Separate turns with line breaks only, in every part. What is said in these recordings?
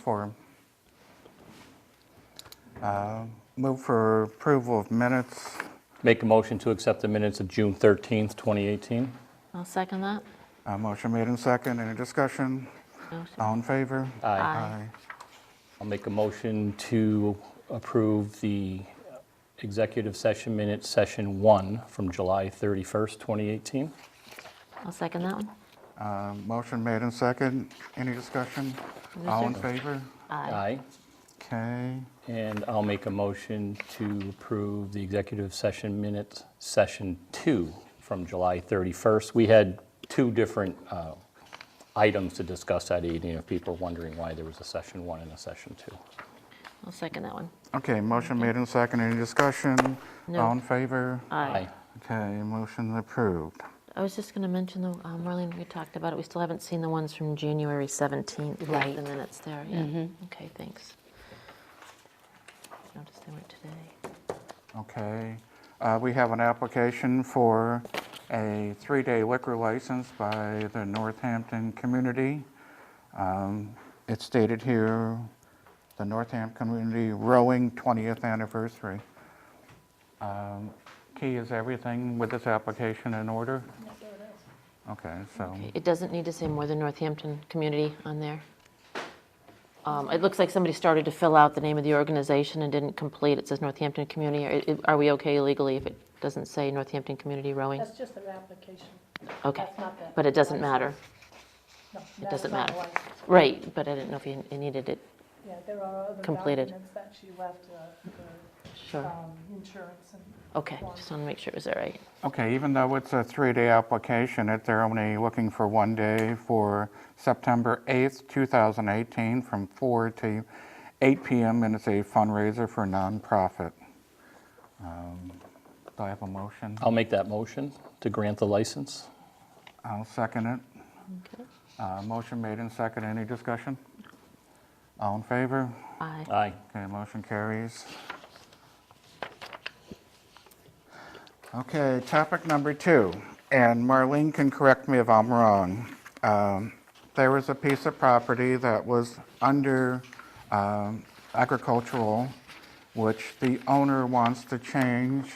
Four. Uh, Move for approval of minutes.
Make a motion to accept the minutes of June 13th, 2018.
I'll second that.
Uh, Motion made and second. Any discussion?
No, sir.
All in favor?
Aye.
Aye.
I'll make a motion to approve the executive session minutes, session one, from July 31st, 2018.
I'll second that one.
Uh, Motion made and second. Any discussion?
No,
All in
sir.
favor?
Aye.
Okay.
And I'll make a motion to approve the executive session minutes, session two, from July 31st. We had two different uh, items to discuss that evening, if people are wondering why there was a session one and a session two.
I'll second that one.
Okay, motion made and second. Any discussion?
No.
All in favor?
Aye.
Okay, motion approved.
I was just going to mention, though, um, Marlene, we talked about it, we still haven't seen the ones from January 17th. Right. Mm-hmm. The minutes there, yeah. Okay, thanks. Noticed they weren't today.
Okay. Uh, We have an application for a three-day liquor license by the Northampton community. Um, It's stated here, the Northampton Community Rowing 20th Anniversary. Um, Key, is everything with this application in order? Yes, it is. Okay, so,
Okay, It doesn't need to say more than Northampton Community on there. Um, It looks like somebody started to fill out the name of the organization and didn't complete. It says Northampton Community. Are- Are we okay legally if it doesn't say Northampton Community Rowing?
That's just their application.
Okay,
That's not the.
but it doesn't matter.
No,
It
that
doesn't
is not
matter.
the license.
Right, but I didn't know if you you needed it,
Yeah, there are other
Completed.
documents that she left, uh, for,
sure.
um, insurance and.
Okay, just want to make sure it was all right.
okay, even though it's a three-day application, it- they're only looking for one day for September 8th, 2018, from four to eight p.m., and it's a fundraiser for nonprofit. Um, Do I have a motion?
I'll make that motion to grant the license.
I'll second it.
Okay.
Uh, Motion made and second. Any discussion? All in favor?
Aye.
Aye.
Okay, motion carries. Okay, topic number two, and Marlene can correct me if I'm wrong. Um, There was a piece of property that was under um, agricultural, which the owner wants to change,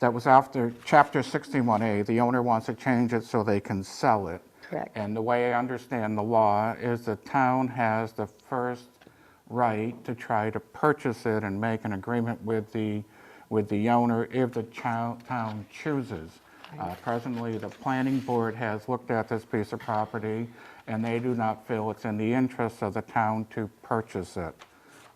that was after Chapter 61A, the owner wants to change it so they can sell it.
Correct.
And the way I understand the law is the town has the first right to try to purchase it and make an agreement with the, with the owner if the chou- town chooses. Uh, Presently, the planning board has looked at this piece of property, and they do not feel it's in the interest of the town to purchase it,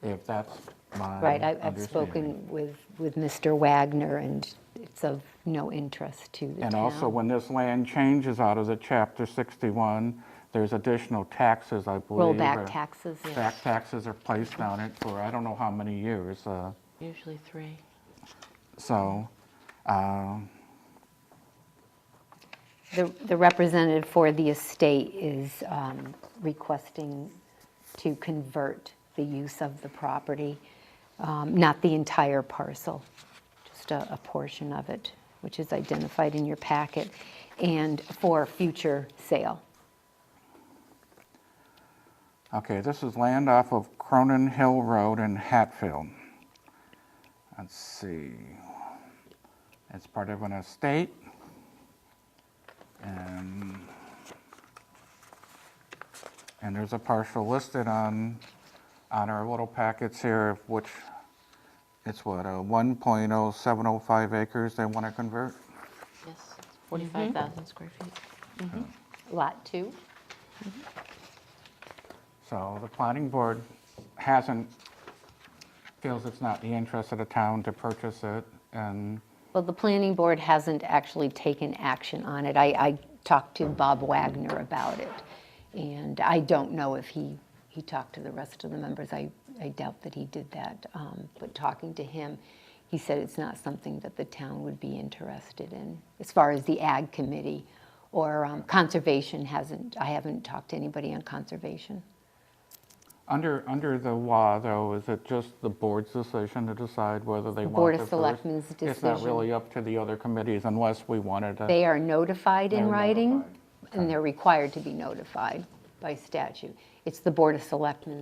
if that's my
Right, I- I've
understanding.
spoken with, with Mr. Wagner, and it's of no interest to the town.
And also, when this land changes out of the Chapter 61, there's additional taxes, I believe.
Rollback
or-
taxes, yes.
Back taxes are placed on it for I don't know how many years. uh,
Usually three.
So, um,
The the representative for the estate is um, requesting to convert the use of the property, um, not the entire parcel, just a a portion of it, which is identified in your packet, and for future sale.
okay, this is land off of Cronin Hill Road in Hatfield. Let's see. It's part of an estate. And, and there's a partial listed on, on our little packets here, of which it's what, uh, 1.0705 acres they want to convert?
Yes, 45,000 square feet.
Lot two?
So the planning board hasn't, feels it's not the interest of the town to purchase it, and,
Well, the planning board hasn't actually taken action on it. I, I talked to Bob Wagner about it, and I don't know if he, he talked to the rest of the members. I, I doubt that he did that, um, but talking to him, he said it's not something that the town would be interested in, as far as the ag committee or um, conservation hasn't, I haven't talked to anybody on conservation.
under, under the law, though, is it just the board's decision to decide whether they want
Board
to
of
first?
Selectmen's
It's not
decision.
really up to the other committees unless we wanted to.
They are notified in
They're
writing,
notified.
and they're required to be notified by statute. It's the Board of Selectmen